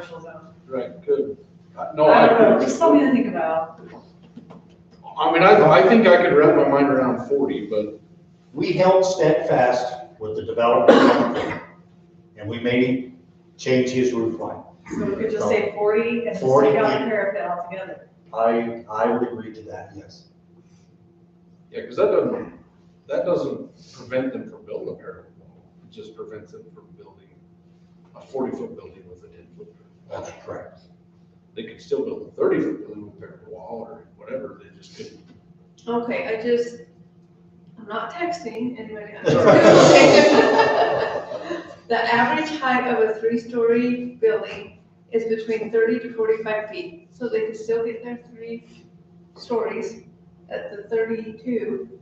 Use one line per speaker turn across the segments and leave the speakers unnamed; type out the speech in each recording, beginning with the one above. commercial zone.
Right, good. Uh, No,
I don't know,
I,
just something to think about.
I mean, I, I think I could wrap my mind around forty, but
We held steadfast with the development, and we made him change his roof line.
So we could just say forty and just take
40.
out the parapet altogether.
I, I would agree to that, yes.
yeah, because that doesn't, that doesn't prevent them from building a parallel wall. It just prevents them from building a forty-foot building with a ten-foot.
That's correct.
They could still build a thirty-foot building with a parallel wall or whatever, they just couldn't.
Okay, I just, I'm not texting anybody.
I'm just-
The average height of a three-story building is between thirty to forty-five feet, so they can still get their three stories at the thirty-two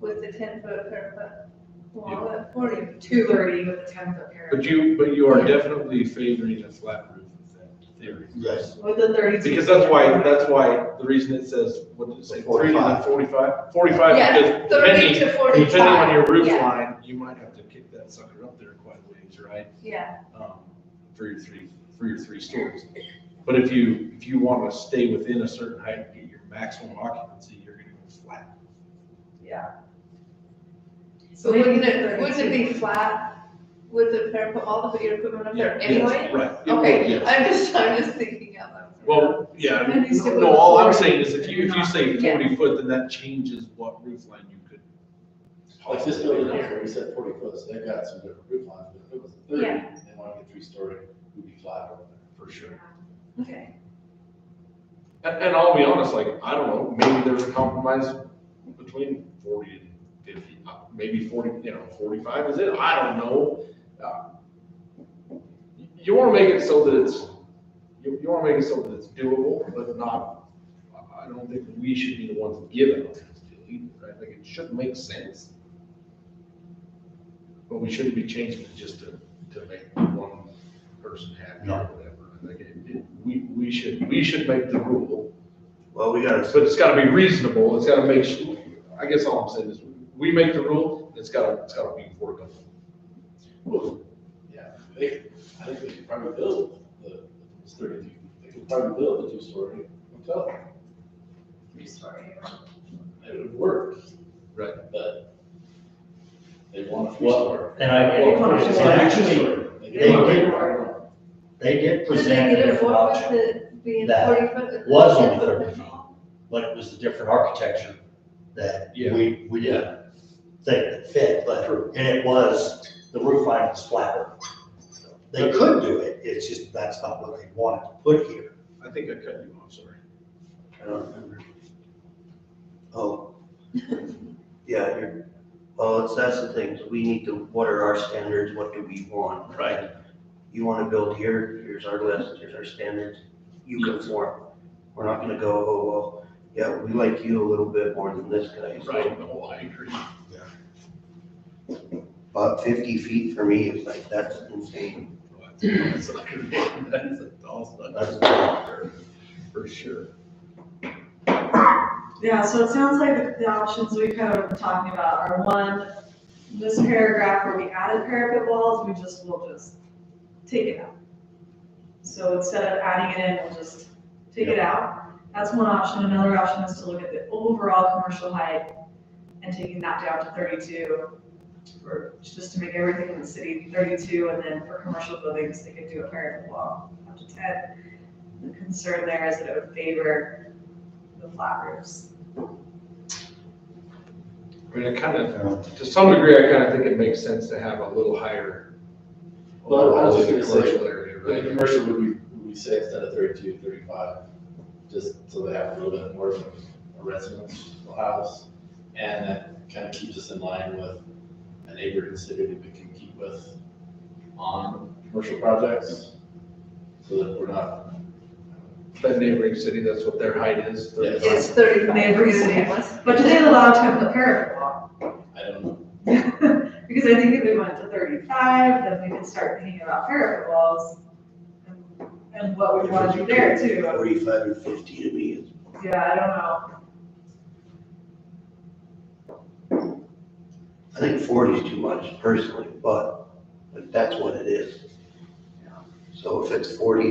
with the ten-foot parapet. Well, at forty-two.
thirty with a ten foot
But
parapet.
you, but you are definitely favoring a flat roof with that theory.
Yes,
With the thirty-two.
Because that's why, that's why, the reason it says, what did it say, three to the
45.
forty-five? Forty-five, because
Yeah, thirty
depending,
to forty-five.
depending on your roof
Yeah,
line, you might have to kick that sucker up there quite a ways, right?
Yeah,
Um, For your three, for your three stories. But if you, if you want to stay within a certain height and get your maximum occupancy, you're gonna go flat.
yeah.
So
So wouldn't it,
maybe
wouldn't it be
32.
flat with the parapet, all of your equipment up there
Yeah,
anyway?
yes, Right. It would,
Okay,
yes.
I'm just, I'm just thinking out loud.
Well, yeah,
Maybe it's still
no, all I'm
forty.
saying is if you, if you say
Yeah.
forty foot, then that changes what roof line you could.
Like this building here, where you said forty foot, so they've got some different roof lines, but if it was a thirty,
Yeah.
they want to get three story, would be flat over there.
For sure.
Okay,
And, and I'll be honest, like, I don't know, maybe there's a compromise between forty and fifty, uh, maybe forty, you know, forty-five is it, I don't know. Uh, You wanna make it so that it's, you, you wanna make it so that it's doable, but not, I- I don't think we should be the ones giving on this deal either, I think it should make sense. But we shouldn't be changing it just to, to make one person happy or
No.
whatever, I think it, it, we, we should, we should make the rule
well, we gotta,
but it's gotta be reasonable, it's gotta make, su- I guess all I'm saying is, we make the rule, it's gotta, it's gotta be workable.
Well, Yeah, they, I think they could probably build the, if it was thirty-two, they could probably build a two-story hotel,
Three story.
it would work.
Right.
But they want a
Well,
three-story.
and I,
Well,
and
it's not
actually,
They
they
want a
did-
three-story.
they did
did they
present a
get it
different
what
option,
with it being
That
forty foot? with the
was only
10 foot?
30 feet. but it was a different architecture that
Yeah.
we, we didn't think that fit, but,
True.
and it was, the roof line was flatter. They could do it, it's just, that's not what they wanted to put here.
I think I cut you off, sorry.
I don't remember. Oh. Yeah, you're, well, it's, that's the thing, we need to, what are our standards, what do we want?
Right.
You wanna build here, here's our list, here's our standards, you conform. We're not gonna go, oh, well, yeah, we like you a little bit more than this guy. so
Right, no, I agree.
About fifty feet for me is like, that's insane.
That's awesome. For sure.
Yeah, so it sounds like the options we've kind of been talking about are one, this paragraph where we added parapet walls, we just, we'll just take it out. So instead of adding it in, we'll just take it out. That's one option. Another option is to look at the overall commercial height and taking that down to thirty-two. Or just to make everything in the city thirty-two, and then for commercial buildings, they could do a parapet wall up to ten. The concern there is that it would favor the flat roofs.
I mean, I kind of, to some degree, I kind of think it makes sense to have a little higher.
Well, I was just gonna say,
Commercial area,
But the
right?
commercial would we, would we say instead of 32, 35, just so they have a little bit more of a residential house? And that kind of keeps us in line with a neighboring city that we can keep with on commercial projects? So that we're not,
That neighboring city, that's what their height is.
Yes.
It's thirty-five.
They agree with it.
Yes.
But do they allow to have the parapet wall?
I don't know,
Because I think if we went to thirty-five, then we could start thinking about parapet walls and- and what we want to do there too.
Forty-five and fifty to me is.
Yeah, I don't know.
I think forty is too much personally, but, but that's what it is.
So if it's forty